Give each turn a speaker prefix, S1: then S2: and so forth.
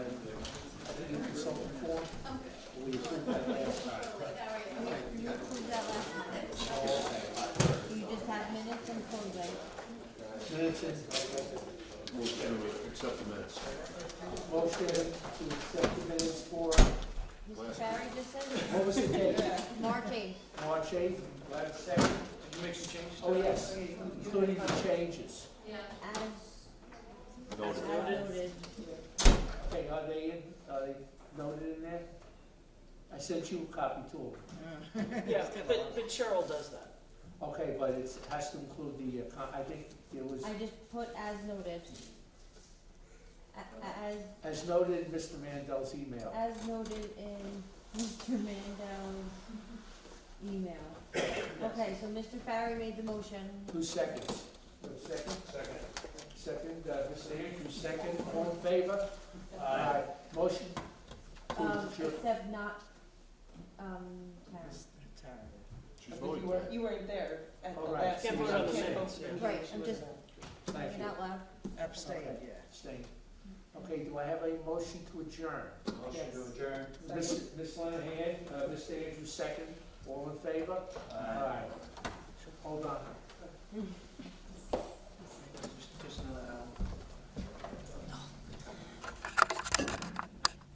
S1: minutes in.
S2: Motion to accept the minutes.
S1: Motion to accept the minutes for,
S3: Mr.
S2: Last-
S3: Barry just said,
S1: what was the date?
S3: March 8th.
S1: March eighth, last second.
S4: Did you make some changes?
S1: Oh, yes, including the changes.
S3: As
S2: Noted.
S3: as noted.
S1: Okay, are they in, are they noted in there? I sent you a copy too.
S5: Yeah, but, but Cheryl does that.
S1: Okay, but it's- it has to include the, uh, con- I think it was,
S3: I just put as noted. A- a- As,
S1: as noted in Mr. Mandel's email.
S3: as noted in Mr. Mandel's email. Okay, so Mr. Farry made the motion.
S1: Who seconds? Who Second? Second. Second, uh, Mr. Andrews, second, all in favor? Aye. Motion to
S3: Um,
S1: adjourn.
S3: except not, um, Karen.
S2: She's voting.
S1: You were-
S4: You weren't there at the
S1: All right.
S4: last.
S1: Can't
S4: meeting.
S1: vote on the
S4: Can't
S5: minutes,
S4: vote.
S5: yeah.
S3: Right, I'm just-
S1: Thank you.
S3: not loud.
S1: Abstain, Abstain. Okay, do I have a motion to adjourn?
S4: Motion to
S1: adjourn. Ms. Ms. Lenahan, uh, Mr. Andrews, second, all in favor? Aye. Hold on.